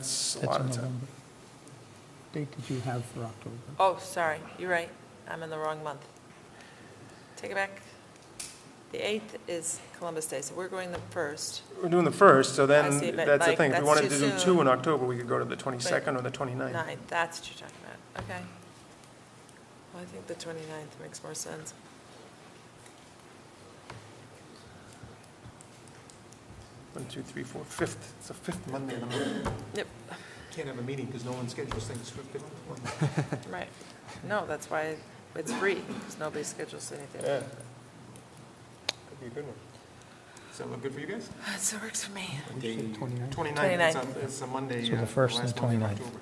that's a That's lot in of time. November. Date did you have for October? Oh, sorry, you're right, I'm in the wrong month. Take it back. The 8th is Columbus Day, so we're going the 1st. We're doing the first, so then, see, but, that's the like, thing. If we that's wanted to too do soon. two in October, we could go to the 22nd or the 29th. 9th, that's what you're talking about, okay. Well, I think the 29th makes more sense. One, two, three, four, fifth. It's the fifth Monday in the month. Yep, Can't have a meeting because no one schedules things for 50. right. No, that's why it's free, because nobody schedules anything. Yeah. Could be a good one. Does that look good for you guys? So it works for me. We said 29th. 29, it's 29. a, it's a Monday. So the uh, first and last the Monday in 29th. October.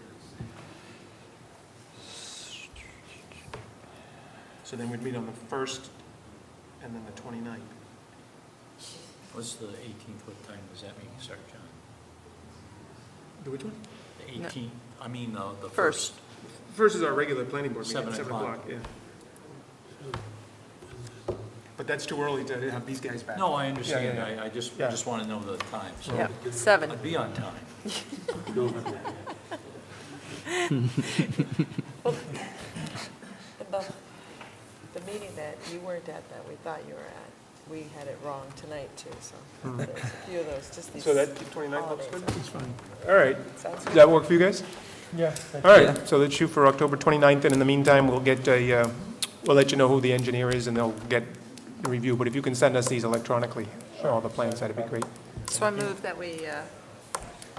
So then we'd meet on the first and then the 29th. What's the 18th, what time does that meeting start, John? Do which one? No. The 18th, I mean, uh, the First. first. First is our regular planning board meeting, Seven at 7 o'clock. o'clock, yeah. But that's too early to have these guys back. No, I understand, yeah, yeah. I, I just, Yeah. just want to know the time, so Yep, 7. I'd be on time. The, the meeting that you weren't at that we thought you were at, we had it wrong tonight too, so there's a few of those, just these. Hmm. So that 29th looks holidays. good? It's fine. All right. Sounds Does that work for you guys? Yeah. All right, so let's shoot for October 29th, and in the meantime, we'll get a, uh, we'll let you know who the engineer is, and they'll get the review, but if you can send us these electronically, all the plans, that'd be great. So I move that we, uh,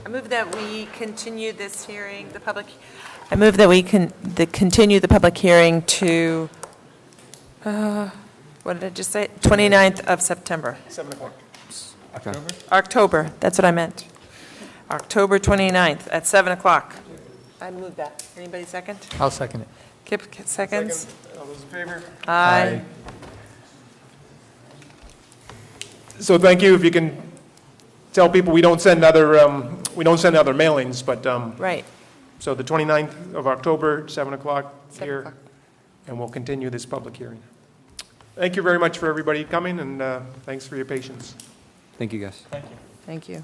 I move that we continue this hearing, the public, I move that we can, the, continue the public hearing to, uh, what did I just say? 29th of September, 7 o'clock. October, that's what I meant. October 29th at 7 o'clock. I move that. Anybody second? I'll second it. Kip, seconds? All those in favor? Aye. So thank you, if you can tell people, we don't send other, um, we don't send other mailings, but, um, Right. so the 29th of October, 7 o'clock Seven here, o'clock. and we'll continue this public hearing. Thank you very much for everybody coming, and uh, thanks for your patience. Thank you, guys. Thank you.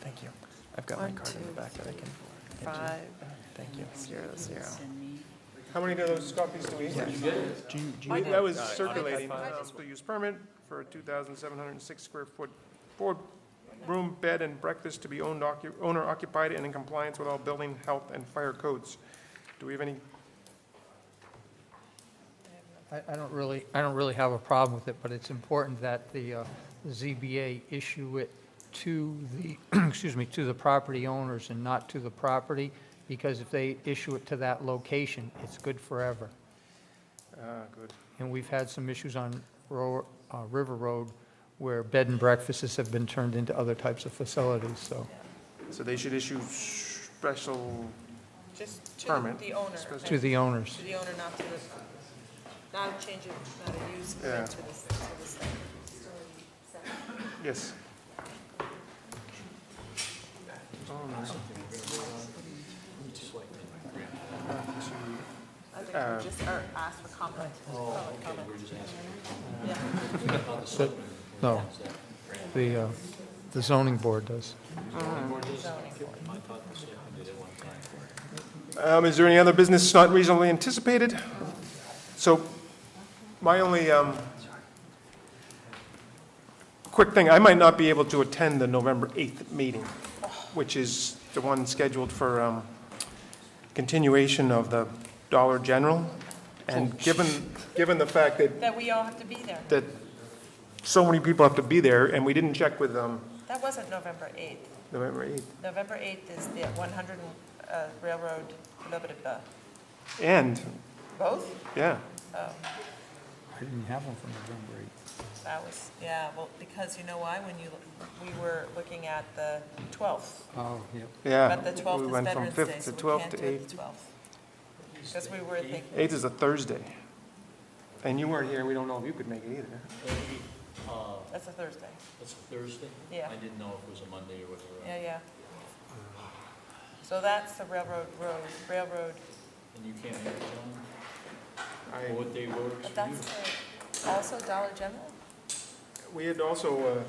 Thank you. I've got my One, card in the two, back that I can- Five, Thank you. zero, zero. How many of those copies do we have? That was circulating, um, to use permit for a 2,706 square foot four-room bed and breakfast to be owned, occu- owner occupied and in compliance with all building, health, and fire codes. Do we have any, I, I don't really, I don't really have a problem with it, but it's important that the uh, ZBA issue it to the, excuse me, to the property owners and not to the property, because if they issue it to that location, it's good forever. ah, good. And we've had some issues on Ro- uh, River Road where bed and breakfasts have been turned into other types of facilities, so. So they should issue special, Just to Permit. the owner. Supposed To the owners. To the owner, not to the, not a change of, not a use, Yeah. but to the, to the site. yes. I think we just Um, are asked for comment. Oh, okay, we're just asking. Yeah. No, the, uh, the zoning board does. Um, Is there any other business not reasonably anticipated? So my only um, quick thing, I might not be able to attend the November 8th meeting, which is the one scheduled for um, continuation of the Dollar General. Oh, And given, given the fact that, That we all have to be there. that so many people have to be there, and we didn't check with um, That wasn't November 8th. November 8th, November 8th is the 100 uh, Railroad, blah, blah, blah. and, Both? yeah, I didn't have one for November That was, yeah, well, because you know why? When you, we were looking at the 12th. 8th. Oh, yeah. yeah. But the We 12th is went from Veterans 5th Day, to so we 12th can't to do 8th. it the 12th. Because we were thinking, 8th is a Thursday. And you weren't here, we don't know if you could make it either. Uh, that's a Thursday. That's a Thursday? Yeah. I didn't know if it was a Monday or whatever. Yeah, yeah. So that's the railroad road, railroad, And you can't make it, John? I- Or What day works but for you? that's the- also Dollar General? We had also, uh,